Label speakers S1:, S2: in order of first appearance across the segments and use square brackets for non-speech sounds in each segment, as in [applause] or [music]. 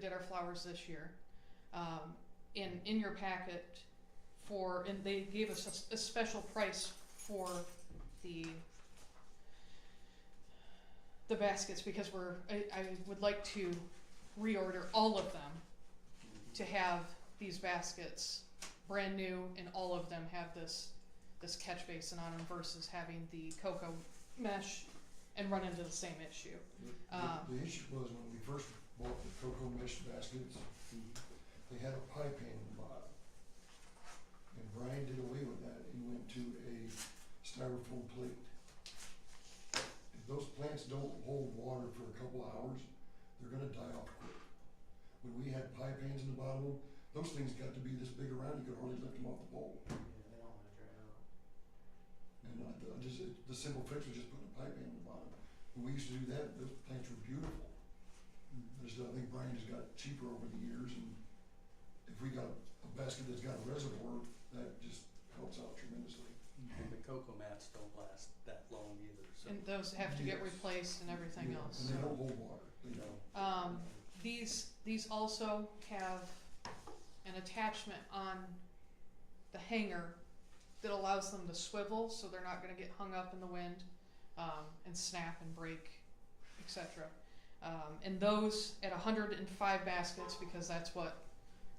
S1: did our flowers this year. Um, in in your packet for and they gave us a s- a, special price for the the baskets because we're I, I would like to reorder all of them to have these baskets brand new and all of them have this this catch basin on them versus having the cocoa mesh and run into the same issue.
S2: The-
S1: Um,
S2: The issue was when we first bought the cocoa mesh baskets, they had a pipe hanging in the bottom. And Brian did away with that, he went to a styrofoam plate. If those plants don't hold water for a couple hours, they're gonna die off quick. When we had pipe hangs in the bottom, of 'em, those things got to be this big around, you could hardly lift them off the pole.
S3: they don't wanna dry out.
S2: And I, I just, it- the simple fix was just putting a pipe in the bottom. When we used to do that, those plants were beautiful. I just, I think Brian has got cheaper over the years and if we got a basket that's got a reservoir, that just helps out tremendously.
S4: And the cocoa mats don't last that long either, so.
S1: And those have to get
S2: Yes.
S1: replaced and everything
S2: Yeah,
S1: else.
S2: And they don't hold water, they don't.
S1: Um, These, these also have an attachment on the hanger that allows them to swivel, so they're not gonna get hung up in the wind, um, and snap and break, et cetera. Um, and those at hundred and five baskets, because that's what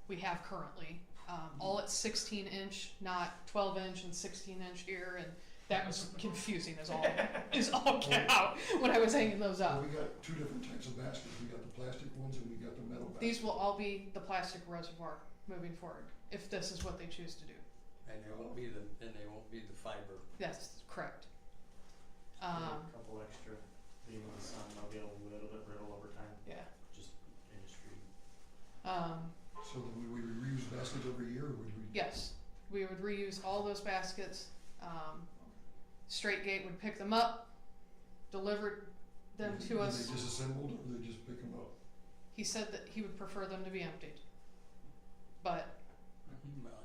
S1: we have currently, um, all at sixteen inch, not twelve inch and sixteen inch here, and that was confusing as all, as all get out when I was hanging those up.
S2: Well, we got two different types of baskets. We got the plastic ones and we got the metal baskets.
S1: These will all be the plastic reservoir moving forward, if this is what they choose to do.
S4: And they won't be the, and they won't be the fiber.
S1: That's correct.
S3: Add
S1: Um,
S3: A couple extra being in the sun, they'll get a little bit brittle over time,
S1: yeah.
S3: just industry.
S1: Um,
S2: So then would we reuse baskets every year or would we?
S1: yes, we would reuse all those baskets. Um, Straight Gate would pick them up, deliver them
S2: Is it-
S1: to
S2: are
S1: us.
S2: they disassembled or they just pick them up?
S1: He said that he would prefer them to be emptied. But,
S5: Mm-hmm.
S4: Well,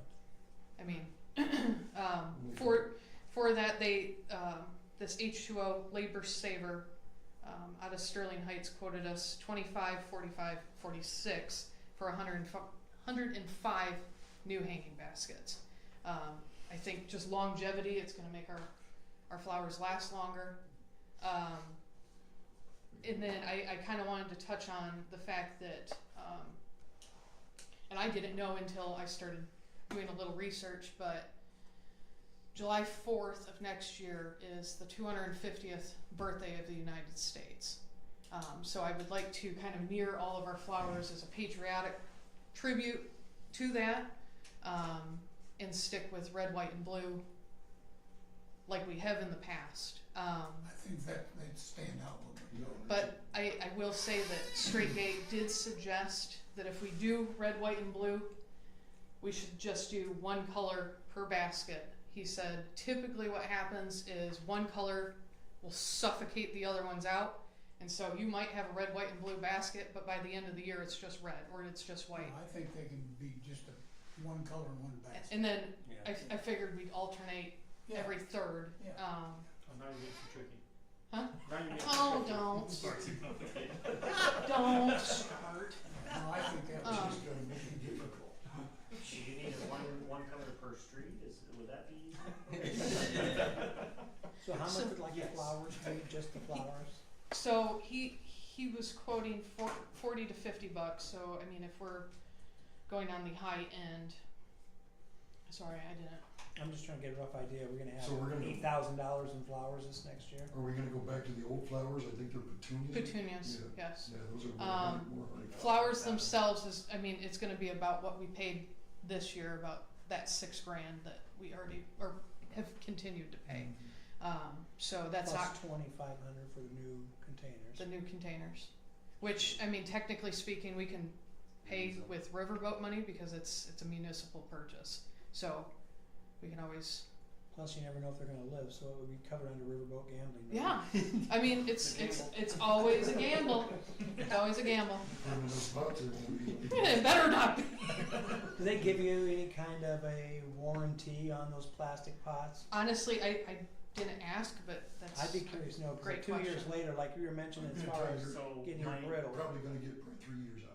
S1: I mean, [clears throat] um, for, for that, they, um, this H2O labor saver um, out of Sterling Heights quoted us 25, 45, 46 for 105, 105 new hanging baskets. Um, I think just longevity, it's going to make our, our flowers last longer. Um, and then I, I kind of wanted to touch on the fact that, um, and I didn't know until I started doing a little research, but July 4th of next year is the 250th birthday of the United States. Um, so I would like to kind of mirror all of our flowers as a patriotic tribute to that um, and stick with red, white, and blue like we have in the past. Um,
S6: I think that they'd stand out a little bit.
S2: No,
S1: but I, I will say that Straight Gate did suggest that if we do red, white, and blue, we should just do one color per basket. He said typically what happens is one color will suffocate the other ones out. And so you might have a red, white, and blue basket, but by the end of the year it's just red or it's just white.
S6: I think they can be just a, one color and one basket.
S1: And then I,
S4: yeah.
S1: I figured we'd alternate
S6: Yeah.
S1: every third.
S6: Yeah.
S1: Um,
S3: Oh, now you're getting too tricky.
S1: Huh?
S3: Now you're getting
S1: oh,
S3: too
S6: [laughs]
S1: don't.
S3: [laughs] tricky.
S1: Don't start.
S6: No, I think that
S2: It's
S6: was,
S1: Um,
S2: just gonna make it difficult.
S3: Do you need a one, one color per street, is, would that [laughs]
S5: [laughs]
S3: be?
S5: So how
S1: So-
S5: much
S4: [laughs]
S5: would like the
S3: Yes.
S5: flowers be, just the flowers?
S1: So he he was quoting four, forty to fifty bucks. So I mean, if we're going on the high end, sorry, I didn't.
S5: I'm just trying to get a rough idea, we're gonna
S2: So we're
S5: have
S2: gonna-
S5: eight thousand dollars in flowers this next year?
S2: Are we gonna go back to the old flowers? I think they're petunias.
S1: Petunias,
S2: Yeah.
S1: yes.
S2: Yeah, those are
S1: Um,
S2: more, more like.
S1: Flowers themselves is I mean, it's going to be about what we paid this year, about that six grand that we already or have continued to pay. Um, so that's not
S5: Plus twenty-five hundred for the new containers.
S1: the new containers, which I mean, technically speaking, we can pay
S4: Mm-hmm.
S1: with riverboat money because it's it's a municipal purchase. So we can always
S5: Plus you never know if they're gonna live, so it would be covered under riverboat gambling. right?
S1: Yeah, I mean, it's it's it's always a gamble.
S6: [laughs]
S1: It's always a gamble. [laughs]
S2: Put 'em in those pots and it'll
S5: [laughs]
S2: be like-
S1: It
S2: [laughs]
S1: better not be.
S5: Do they give you any kind of a warranty on those plastic pots?
S1: Uh, Honestly, I, I didn't ask, but that's.
S5: I'd be curious to know, 'cause
S1: Great
S5: two years
S1: question.
S4: Mm-hmm.
S5: later, like you were mentioning, as
S2: Yeah,
S5: far
S2: tiger.
S5: as
S3: So
S5: getting
S3: my-
S5: brittle.
S2: Probably gonna get probably three years